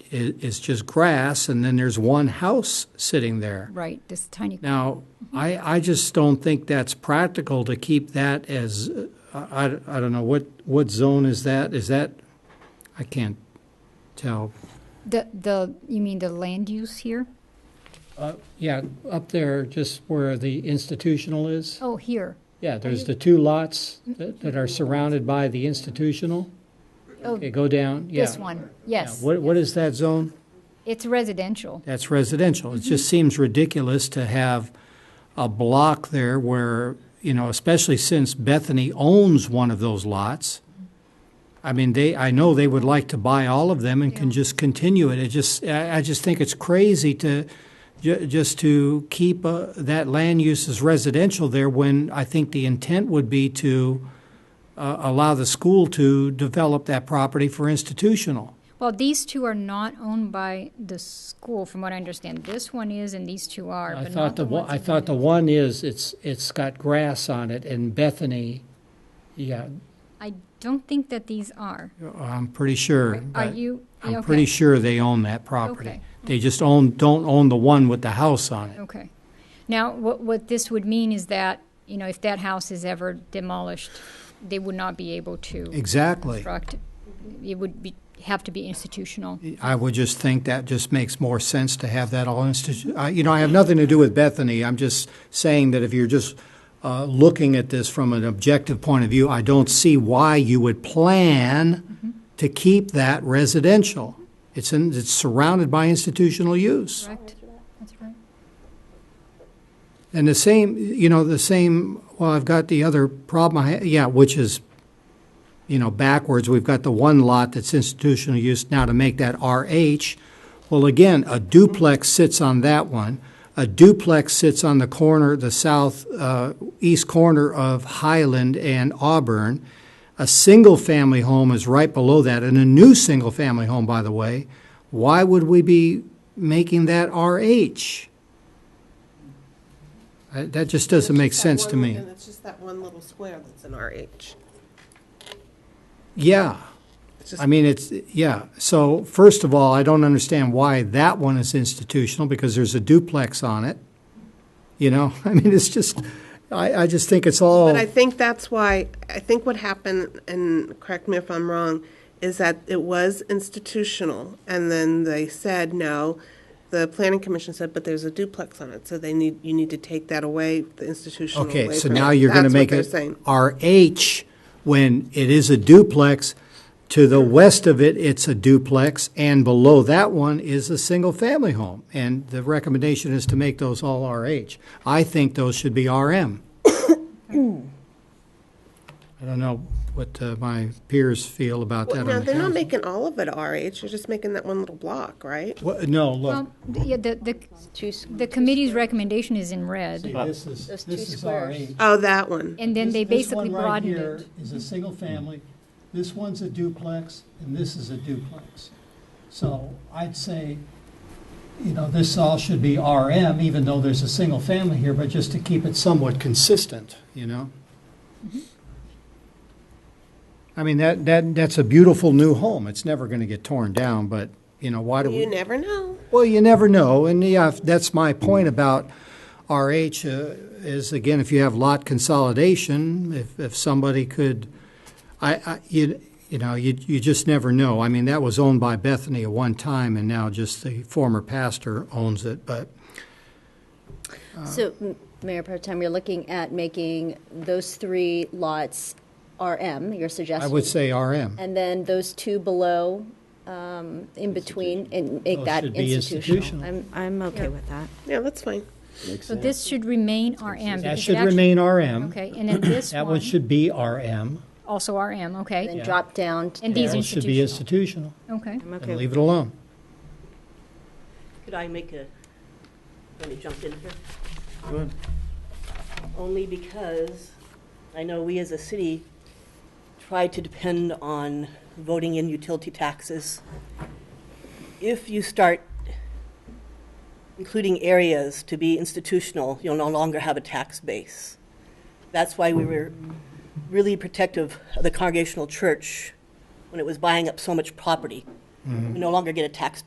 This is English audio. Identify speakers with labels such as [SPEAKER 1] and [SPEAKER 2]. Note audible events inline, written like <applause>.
[SPEAKER 1] i it's just grass, and then there's one house sitting there.
[SPEAKER 2] right, this tiny,
[SPEAKER 1] Now, I, I just don't think that's practical to keep that as, uh, I, I don't know, what, what zone is that? Is that, I can't tell.
[SPEAKER 2] the, the, you mean the land use here?
[SPEAKER 1] Yeah, up there, just where the institutional is.
[SPEAKER 2] Oh, here.
[SPEAKER 1] Yeah, there's the two lots that, that are surrounded by the institutional.
[SPEAKER 2] Oh,
[SPEAKER 1] Okay, go down, yeah.
[SPEAKER 2] This one, yes.
[SPEAKER 1] Yeah, What, what is that zone?
[SPEAKER 2] It's residential.
[SPEAKER 1] That's residential. It just seems ridiculous to have a block there where, you know, especially since Bethany owns one of those lots. I mean, they, I know they would like to buy all of them and can just continue it. It just, I, I just think it's crazy to, ju- just to keep uh, that land use as residential there when I think the intent would be to uh, allow the school to develop that property for institutional.
[SPEAKER 2] Well, these two are not owned by the school, from what I understand. This one is, and these two are,
[SPEAKER 1] I
[SPEAKER 2] but
[SPEAKER 1] thought
[SPEAKER 2] not
[SPEAKER 1] the,
[SPEAKER 2] the
[SPEAKER 1] one-
[SPEAKER 2] ones.
[SPEAKER 1] I
[SPEAKER 2] in
[SPEAKER 1] thought the one is, it's, it's got grass on it, and Bethany, yeah,
[SPEAKER 2] I don't think that these are.
[SPEAKER 1] Uh, I'm pretty sure.
[SPEAKER 2] Are
[SPEAKER 1] but
[SPEAKER 2] you?
[SPEAKER 1] I'm
[SPEAKER 2] okay,
[SPEAKER 1] pretty sure they own that property.
[SPEAKER 2] Okay.
[SPEAKER 1] They just own, don't own the one with the house on it.
[SPEAKER 2] Okay. Now, what, what this would mean is that, you know, if that house is ever demolished, they would not be able to
[SPEAKER 1] Exactly.
[SPEAKER 2] construct. It would be, have to be institutional.
[SPEAKER 1] I would just think that just makes more sense to have that all institu, I- you know, I have nothing to do with Bethany. I'm just saying that if you're just uh, looking at this from an objective point of view, I don't see why you would plan to keep that residential. It's in, it's surrounded by institutional use.
[SPEAKER 2] Correct? That's right.
[SPEAKER 1] And the same, you know, the same, well, I've got the other problem, I ha- yeah, which is, you know, backwards. We've got the one lot that's institutional use now to make that RH. Well, again, a duplex sits on that one. A duplex sits on the corner, the south, uh, east corner of Highland and Auburn. A single-family home is right below that, and a new single-family home, by the way. Why would we be making that RH? I- That just doesn't make
[SPEAKER 3] It's just that
[SPEAKER 1] sense to
[SPEAKER 3] one-
[SPEAKER 1] me.
[SPEAKER 3] And it's just that one little square that's an RH.
[SPEAKER 1] Yeah.
[SPEAKER 3] It's just-
[SPEAKER 1] I mean, it's, yeah. So first of all, I don't understand why that one is institutional because there's a duplex on it. You know, <laughs> I mean, it's just, I, I just think it's all,
[SPEAKER 3] But I think that's why, I think what happened, and correct me if I'm wrong, is that it was institutional, and then they said, no, the planning commission said, but there's a duplex on it, so they need, you need to take that away, the institutional away
[SPEAKER 1] okay, so
[SPEAKER 3] from
[SPEAKER 1] now
[SPEAKER 3] it.
[SPEAKER 1] you're going to
[SPEAKER 3] That's what
[SPEAKER 1] make
[SPEAKER 3] they're
[SPEAKER 1] it
[SPEAKER 3] saying.
[SPEAKER 1] RH when it is a duplex. To the west of it, it's a duplex, and below that one is a single-family home. And the recommendation is to make those all RH. I think those should be <coughs> RM. I don't know what uh, my peers feel about that.
[SPEAKER 3] Now,
[SPEAKER 1] on the
[SPEAKER 3] they're not
[SPEAKER 1] council.
[SPEAKER 3] making all of it RH, they're just making that one little block, right?
[SPEAKER 1] What- No, look,
[SPEAKER 2] Well, th- yeah, the, the, the committee's recommendation is in
[SPEAKER 1] see,
[SPEAKER 2] red,
[SPEAKER 1] this is,
[SPEAKER 4] Those two
[SPEAKER 1] this is
[SPEAKER 4] squares.
[SPEAKER 1] RH.
[SPEAKER 3] Oh, that one.
[SPEAKER 2] and then
[SPEAKER 1] This-
[SPEAKER 2] they basically
[SPEAKER 1] This one right
[SPEAKER 2] broadened
[SPEAKER 1] here
[SPEAKER 2] it.
[SPEAKER 1] is a single family, this one's a duplex, and this is a duplex. So I'd say, you know, this all should be RM, even though there's a single family here, but just to keep it somewhat consistent, you know?
[SPEAKER 2] Mm-hmm.
[SPEAKER 1] I mean, that, that, that's a beautiful new home, it's never gonna get torn down, but, you know, why do we?
[SPEAKER 3] You never know.
[SPEAKER 1] Well, you never know, and yeah, if- that's my point about RH uh, is again, if you have lot consolidation, if if somebody could, I, I you you know you you just never know. I mean, that was owned by Bethany at one time, and now just the former pastor owns it, but.
[SPEAKER 2] uh,
[SPEAKER 4] So, M- Mayor Pro Tem, you're looking at making those three lots RM, your
[SPEAKER 1] I
[SPEAKER 4] suggestion?
[SPEAKER 1] would say RM.
[SPEAKER 4] And then those two below, um, in between, and make
[SPEAKER 1] Those
[SPEAKER 4] that
[SPEAKER 1] should be institutional.
[SPEAKER 4] institutional?
[SPEAKER 5] I'm, I'm okay with that.
[SPEAKER 3] Yeah, that's fine.
[SPEAKER 2] So this should remain RM.
[SPEAKER 1] That
[SPEAKER 2] because it
[SPEAKER 1] should
[SPEAKER 2] actu-
[SPEAKER 1] remain RM.
[SPEAKER 2] Okay, and
[SPEAKER 1] <clears throat>
[SPEAKER 2] then this
[SPEAKER 1] That one
[SPEAKER 2] one,
[SPEAKER 1] should be RM.
[SPEAKER 2] also RM, okay,
[SPEAKER 4] Then drop down. to-
[SPEAKER 2] And
[SPEAKER 1] That
[SPEAKER 2] these
[SPEAKER 1] one should be institutional.
[SPEAKER 2] okay.
[SPEAKER 5] I'm okay
[SPEAKER 1] And
[SPEAKER 5] with
[SPEAKER 1] leave it alone.
[SPEAKER 6] Could I make a, let me jump in here? Only because I know we as a city try to depend on voting in utility taxes. If you start including areas to be institutional, you'll no longer have a tax base. That's why we were really protective of the Congregational Church when it was buying up so much property. We no longer get a tax